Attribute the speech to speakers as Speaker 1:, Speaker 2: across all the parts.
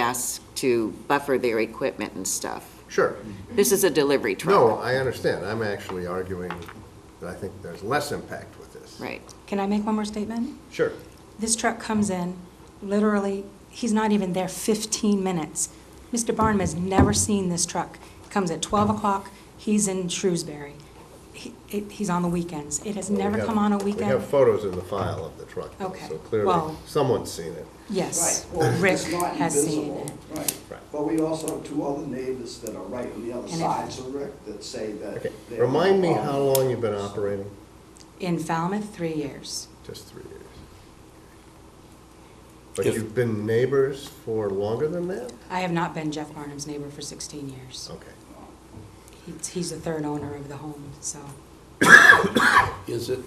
Speaker 1: asked to buffer their equipment and stuff.
Speaker 2: Sure.
Speaker 1: This is a delivery truck,
Speaker 2: No, I understand. I'm actually arguing that I think there's less impact with this.
Speaker 1: right?
Speaker 3: Can I make one more statement?
Speaker 2: Sure.
Speaker 3: This truck comes in, literally, he's not even there 15 minutes. Mr. Barnum has never seen this truck. Comes at 12 o'clock, he's in Shrewsbury. He- it- He's on the weekends. It has never come on a
Speaker 2: We
Speaker 3: weekend.
Speaker 2: have photos in the file of the truck, though,
Speaker 3: Okay.
Speaker 2: so clearly
Speaker 3: Well-
Speaker 2: someone's seen it.
Speaker 3: Yes,
Speaker 4: Right, well,
Speaker 3: Rick
Speaker 4: it's not
Speaker 3: has seen
Speaker 4: invisible,
Speaker 3: it.
Speaker 4: Right,
Speaker 2: Right.
Speaker 4: but we also have two other neighbors that are right on the other
Speaker 3: And if-
Speaker 4: side, so Rick, that say that.
Speaker 2: Okay,
Speaker 4: they're-
Speaker 2: remind me how long you've been operating?
Speaker 3: In Falmouth, three years.
Speaker 2: Just three years. But
Speaker 5: If-
Speaker 2: you've been neighbors for longer than that?
Speaker 3: I have not been Jeff Barnum's neighbor for 16 years.
Speaker 2: Okay.
Speaker 3: He's- He's the third owner of the home, so.
Speaker 5: Is it,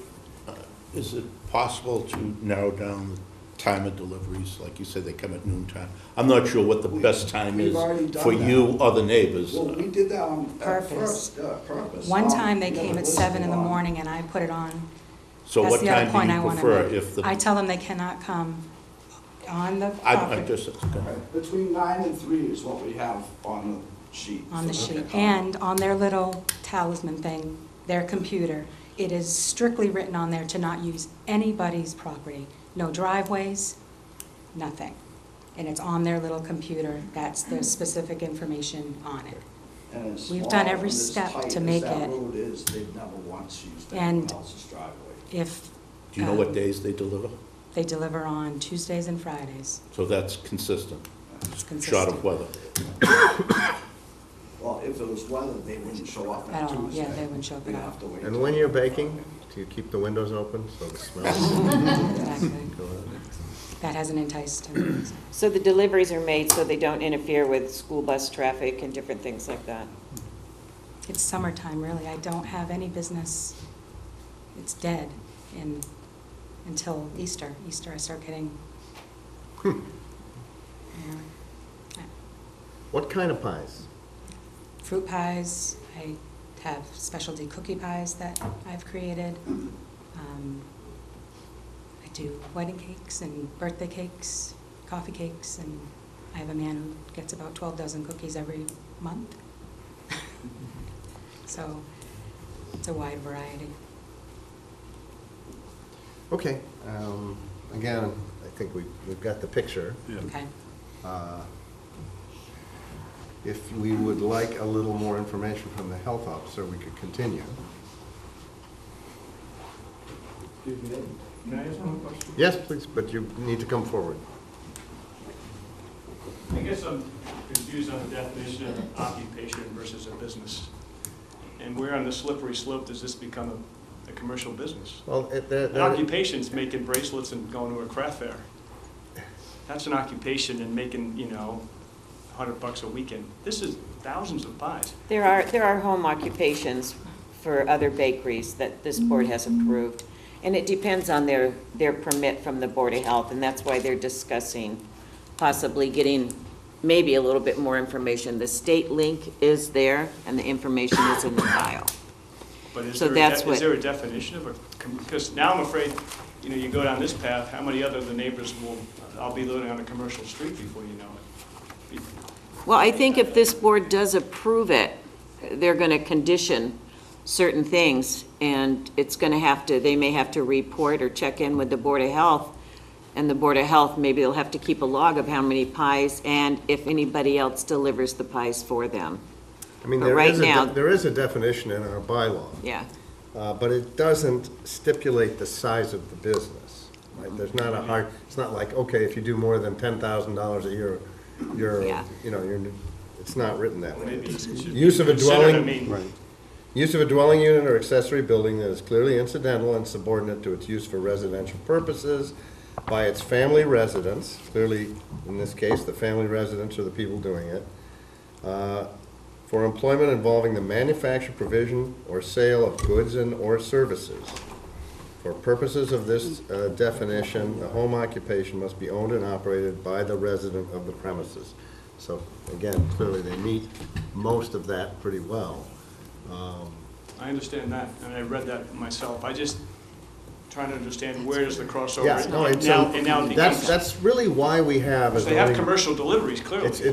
Speaker 5: uh, is it possible to narrow down the time of deliveries? Like you said, they come at noon time. I'm not sure what the best time
Speaker 4: We've
Speaker 5: is
Speaker 4: already done
Speaker 5: for
Speaker 4: that.
Speaker 5: you or the neighbors.
Speaker 4: Well, we did that on
Speaker 3: Purpose.
Speaker 4: purpose, purpose.
Speaker 3: One
Speaker 4: Um,
Speaker 3: time they
Speaker 4: we
Speaker 3: came
Speaker 4: never
Speaker 3: at seven in the
Speaker 4: listed on-
Speaker 3: morning and I put it on
Speaker 5: So
Speaker 3: That's
Speaker 5: what
Speaker 3: the other
Speaker 5: time
Speaker 3: point
Speaker 5: do
Speaker 3: I
Speaker 5: you
Speaker 3: want to
Speaker 5: prefer
Speaker 3: make.
Speaker 5: if the?
Speaker 3: I tell them they cannot come on the
Speaker 5: I- I'm
Speaker 3: property,
Speaker 5: just, go ahead.
Speaker 4: Right, Between nine and three is what we have on the sheet.
Speaker 3: on the
Speaker 4: for
Speaker 3: sheet,
Speaker 4: pickup.
Speaker 3: and on their little talisman thing, their computer. It is strictly written on there to not use anybody's property, no driveways, nothing. And it's on their little computer, that's the specific information on it.
Speaker 4: And as
Speaker 3: we've
Speaker 4: small
Speaker 3: done
Speaker 4: and
Speaker 3: every
Speaker 4: as
Speaker 3: step
Speaker 4: tight
Speaker 3: to
Speaker 4: as
Speaker 3: make
Speaker 4: that
Speaker 3: it.
Speaker 4: road is, they've never once used
Speaker 3: And-
Speaker 4: anyone else's driveway.
Speaker 3: If
Speaker 5: Do you
Speaker 3: Uh,
Speaker 5: know what days they deliver?
Speaker 3: they deliver on Tuesdays and Fridays,
Speaker 5: So that's consistent,
Speaker 3: it's
Speaker 5: short
Speaker 3: consistent.
Speaker 5: of weather.
Speaker 4: Well, if it was weather, they wouldn't show up
Speaker 3: At
Speaker 4: on
Speaker 3: all,
Speaker 4: Tuesday.
Speaker 3: yeah, they wouldn't show up
Speaker 4: We'd
Speaker 3: at all.
Speaker 4: have to wait.
Speaker 2: And
Speaker 4: till-
Speaker 2: when you're baking, do you keep the windows open so the smell?
Speaker 3: Exactly. That hasn't enticed him.
Speaker 6: So the deliveries are made so they don't interfere with school bus traffic and different things like that?
Speaker 3: It's summertime, really. I don't have any business. It's dead in, until Easter. Easter, I start getting. Yeah.
Speaker 2: What kind of pies?
Speaker 3: Fruit pies, I have specialty cookie pies that I've created. Um, I do wedding cakes and birthday cakes, coffee cakes, and I have a man who gets about 12 dozen cookies every month. So it's a wide variety.
Speaker 2: Okay, um, again, I think we, we've got the picture.
Speaker 3: Okay.
Speaker 2: Uh, If we would like a little more information from the health officer, we could continue.
Speaker 7: Can I ask one question?
Speaker 2: Yes, please, but you need to come forward.
Speaker 7: I guess I'm confused on the definition of occupation versus a business. And where on the slippery slope does this become a, a commercial business?
Speaker 2: Well, it-
Speaker 6: Uh,
Speaker 2: that-
Speaker 7: An occupation's making bracelets and going to a craft fair. That's an occupation and making, you know, a hundred bucks a weekend. This is thousands of buys.
Speaker 6: There are, there are home occupations for other bakeries that this board has approved, and it depends on their, their permit from the Board of Health, and that's why they're discussing possibly getting maybe a little bit more information. The state link is there, and the information is in the file.
Speaker 7: But is
Speaker 6: So
Speaker 7: there, a
Speaker 6: that's
Speaker 7: de-
Speaker 6: what-
Speaker 7: is there a definition of a, because now I'm afraid, you know, you go down this path, how many other of the neighbors will, I'll be living on a commercial street before you know it. Be-
Speaker 6: Well, I think if this board does approve it, they're going to condition certain things, and it's going to have to, they may have to report or check in with the Board of Health, and the Board of Health, maybe they'll have to keep a log of how many pies, and if anybody else delivers the pies for them,
Speaker 2: I mean,
Speaker 6: but
Speaker 2: there
Speaker 6: right
Speaker 2: is, a de-
Speaker 6: now-
Speaker 2: there is a definition in our bylaw,
Speaker 6: yeah.
Speaker 2: uh, but it doesn't stipulate the size of the business. Right? There's not a hard, it's not like, okay, if you do more than ten thousand dollars a year, you're,
Speaker 6: Yeah.
Speaker 2: you know, you're, it's not written that way.
Speaker 7: Maybe it should be
Speaker 2: Use of a
Speaker 7: considered,
Speaker 2: dwelling.
Speaker 7: I mean,
Speaker 2: Use of a dwelling unit or accessory building that is clearly incidental and subordinate to its use for residential purposes by its family residents, clearly, in this case, the family residents are the people doing it, uh, for employment involving the manufacture, provision, or sale of goods and/or services. For purposes of this uh, definition, a home occupation must be owned and operated by the resident of the premises. So, again, clearly, they meet most of that pretty well.
Speaker 7: I understand that, and I read that myself. I just, trying to understand where is the crossover.
Speaker 2: Yeah, no,
Speaker 7: and
Speaker 2: it's,
Speaker 7: now- And now it
Speaker 2: that's,
Speaker 7: becomes,
Speaker 2: that's really why we have. a
Speaker 7: they have
Speaker 2: zoning-
Speaker 7: commercial deliveries, clearly.
Speaker 2: It's-